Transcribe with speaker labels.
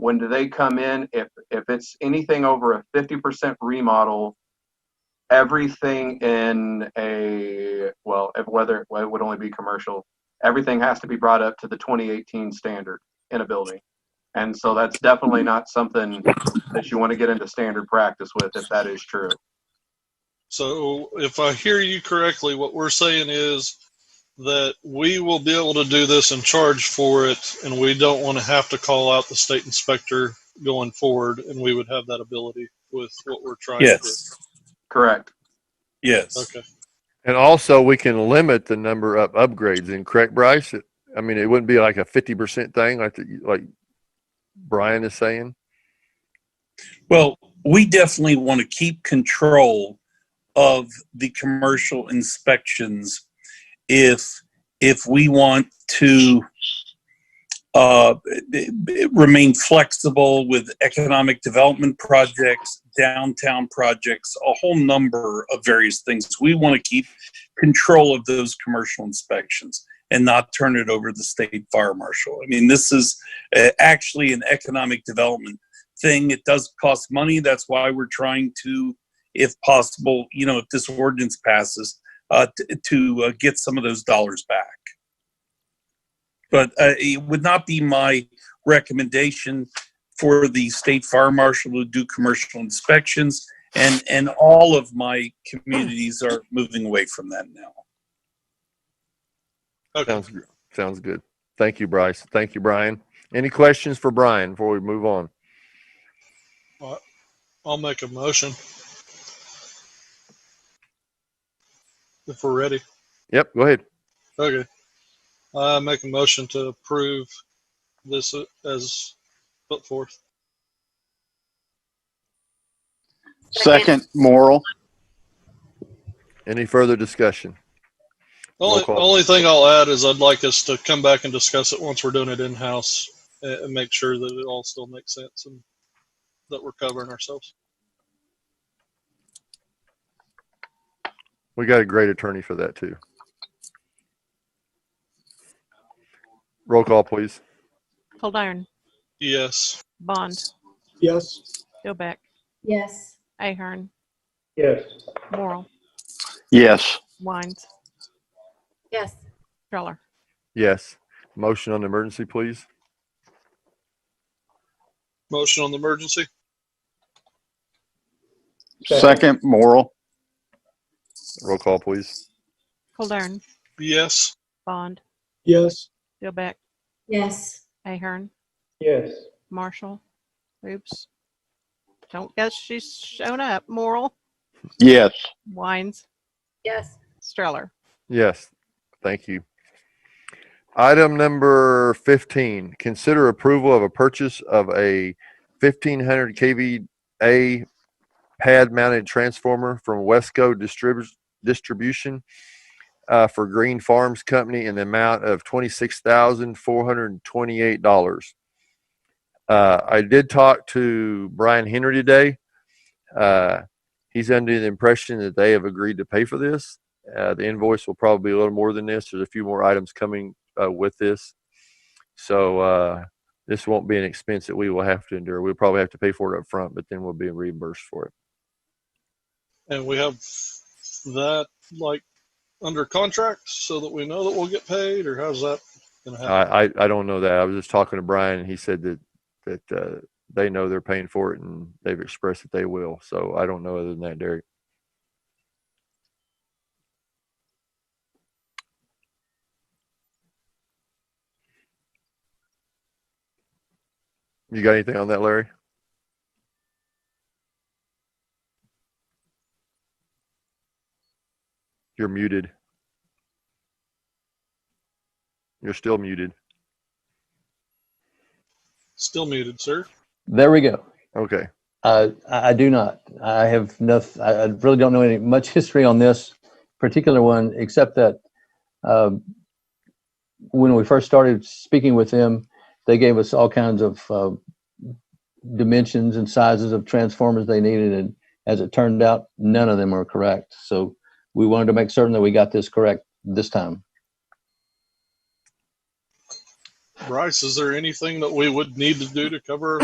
Speaker 1: when do they come in? If, if it's anything over a fifty percent remodel, everything in a, well, if whether, well, it would only be commercial, everything has to be brought up to the twenty eighteen standard in a building. And so that's definitely not something that you want to get into standard practice with if that is true.
Speaker 2: So if I hear you correctly, what we're saying is that we will be able to do this and charge for it, and we don't want to have to call out the state inspector going forward, and we would have that ability with what we're trying
Speaker 3: Yes.
Speaker 1: Correct.
Speaker 3: Yes.
Speaker 2: to do. Okay.
Speaker 4: And also, we can limit the number of upgrades. And correct, Bryce. It- I mean, it wouldn't be like a fifty percent thing, like the, like Brian is saying.
Speaker 3: Well, we definitely want to keep control of the commercial inspections if if we want to uh, b- b- remain flexible with economic development projects, downtown projects, a whole number of various things. We want to keep control of those commercial inspections and not turn it over to the state fire marshal. I mean, this is uh, actually an economic development thing. It does cost money. That's why we're trying to, if possible, you know, if this ordinance passes, uh, t- to uh, get some of those dollars back. But uh, it would not be my recommendation for the state fire marshal to do commercial inspections. And, and all of my communities are moving away from that now.
Speaker 2: Okay.
Speaker 4: Sounds gr- sounds good. Thank you, Bryce. Thank you, Brian. Any questions for Brian before we move on?
Speaker 2: I'll make a motion. If we're ready.
Speaker 4: Yep. Go ahead.
Speaker 2: Okay. I make a motion to approve this as put forth.
Speaker 5: Second, Morrell.
Speaker 4: Any further discussion?
Speaker 2: Only,
Speaker 4: Roll call.
Speaker 2: only thing I'll add is I'd like us to come back and discuss it once we're doing it in-house and, and make sure that it all still makes sense and that we're covering ourselves.
Speaker 4: We got a great attorney for that too. Roll call, please.
Speaker 6: Caldern,
Speaker 2: Yes.
Speaker 6: Bond,
Speaker 7: Yes.
Speaker 6: Dilbeck,
Speaker 8: Yes.
Speaker 6: Ahern,
Speaker 7: Yes.
Speaker 6: Morrell,
Speaker 5: Yes.
Speaker 6: Wines,
Speaker 8: Yes.
Speaker 6: Streller.
Speaker 4: Yes. Motion on the emergency, please.
Speaker 2: Motion on the emergency?
Speaker 5: Second, Morrell.
Speaker 4: Roll call, please.
Speaker 6: Caldern,
Speaker 2: Yes.
Speaker 6: Bond,
Speaker 7: Yes.
Speaker 6: Dilbeck,
Speaker 8: Yes.
Speaker 6: Ahern,
Speaker 7: Yes.
Speaker 6: Marshall. Oops. Don't guess she's shown up. Morrell,
Speaker 5: Yes.
Speaker 6: Wines,
Speaker 8: Yes.
Speaker 6: Streller.
Speaker 4: Yes, thank you. Item number fifteen, consider approval of a purchase of a fifteen hundred KVA pad mounted transformer from Wesco Distrib- Distribution uh, for Green Farms Company in the amount of twenty-six thousand four hundred and twenty-eight dollars. Uh, I did talk to Brian Henry today. Uh, he's under the impression that they have agreed to pay for this. Uh, the invoice will probably be a little more than this. There's a few more items coming uh, with this. So uh, this won't be an expense that we will have to endure. We'll probably have to pay for it up front, but then we'll be reimbursed for it.
Speaker 2: And we have that like under contract so that we know that we'll get paid or how's that gonna happen?
Speaker 4: I, I, I don't know that. I was just talking to Brian, and he said that that uh, they know they're paying for it, and they've expressed that they will. So I don't know other than that, Derek. You got anything on that, Larry? You're muted. You're still muted.
Speaker 2: Still muted, sir.
Speaker 9: There we go.
Speaker 4: Okay.
Speaker 9: Uh, I I do not. I have no. I I really don't know any much history on this particular one, except that um, when we first started speaking with them, they gave us all kinds of uh, dimensions and sizes of transformers they needed, and as it turned out, none of them were correct. So we wanted to make certain that we got this correct this time.
Speaker 2: Bryce, is there anything that we would need to do to cover